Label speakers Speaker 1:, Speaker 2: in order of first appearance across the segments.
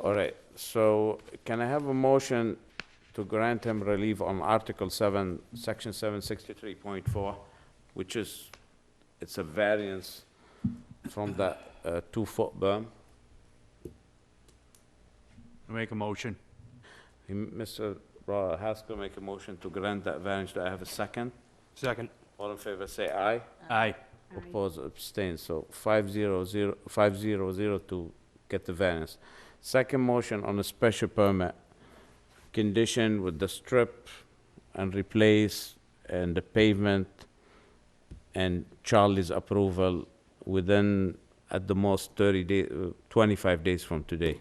Speaker 1: All right, so can I have a motion to grant him relief on Article 7, Section 763.4, which is, it's a variance from the uh, two-foot berm?
Speaker 2: Make a motion.
Speaker 1: He- Mr. Ra- Haskell make a motion to grant that variance. Do I have a second?
Speaker 2: Second.
Speaker 1: All in favor, say aye.
Speaker 2: Aye.
Speaker 1: Oppose, abstain, so five zero zero, five zero zero to get the variance. Second motion on a special permit, condition with the strip and replace and the pavement and Charlie's approval within, at the most thirty day, uh, twenty-five days from today.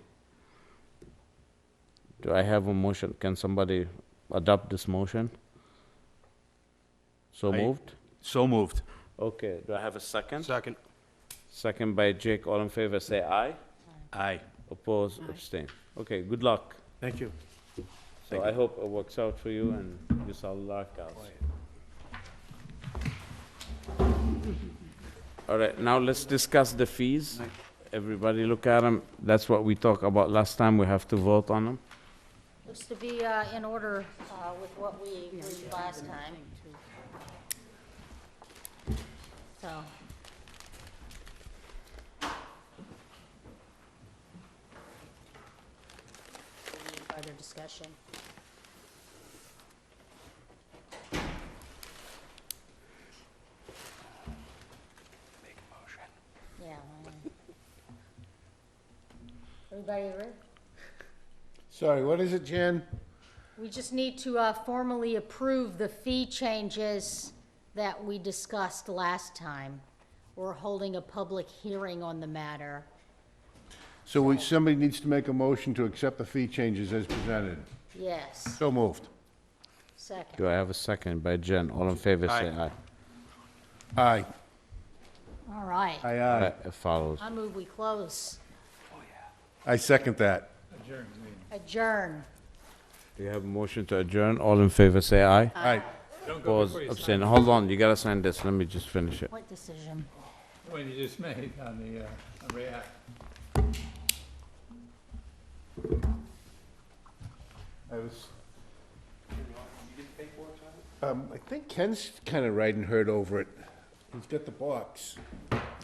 Speaker 1: Do I have a motion? Can somebody adopt this motion? So
Speaker 2: I-
Speaker 1: moved?
Speaker 2: So moved.
Speaker 1: Okay, do I have a second?
Speaker 2: Second.
Speaker 1: Second by Jake, all in favor, say aye.
Speaker 2: Aye.
Speaker 1: Oppose, abstain. Okay, good luck.
Speaker 2: Thank you.
Speaker 1: So
Speaker 2: Thank
Speaker 1: I hope it works out for you and you saw luck out. All right, now let's discuss the fees. Everybody look at them. That's what we talked about last time. We have to vote on them.
Speaker 3: Looks to be uh, in order uh, with what we agreed last time. So, any further discussion? Yeah. I know. Everybody agree?
Speaker 4: Sorry, what is it, Jan?
Speaker 3: We just need to uh, formally approve the fee changes that we discussed last time. We're holding a public hearing on the matter.
Speaker 4: So we, somebody needs to make a motion to accept the fee changes as presented.
Speaker 3: Yes,
Speaker 4: So moved.
Speaker 3: second.
Speaker 1: Do I have a second by Jen? All in favor, say aye.
Speaker 4: Aye.
Speaker 3: All right.
Speaker 4: Aye,
Speaker 1: All
Speaker 4: aye.
Speaker 1: right, It follows.
Speaker 3: I move we close.
Speaker 4: I second that.
Speaker 3: Adjourn.
Speaker 1: Do you have a motion to adjourn? All in favor, say aye.
Speaker 4: Aye.
Speaker 1: Oppose, abstain. Hold on, you gotta sign this. Let me just finish it.
Speaker 3: What decision?
Speaker 5: What you just made on the, uh, on React.
Speaker 4: I was. Um, I think Ken's kind of riding herd over it. He's got the box.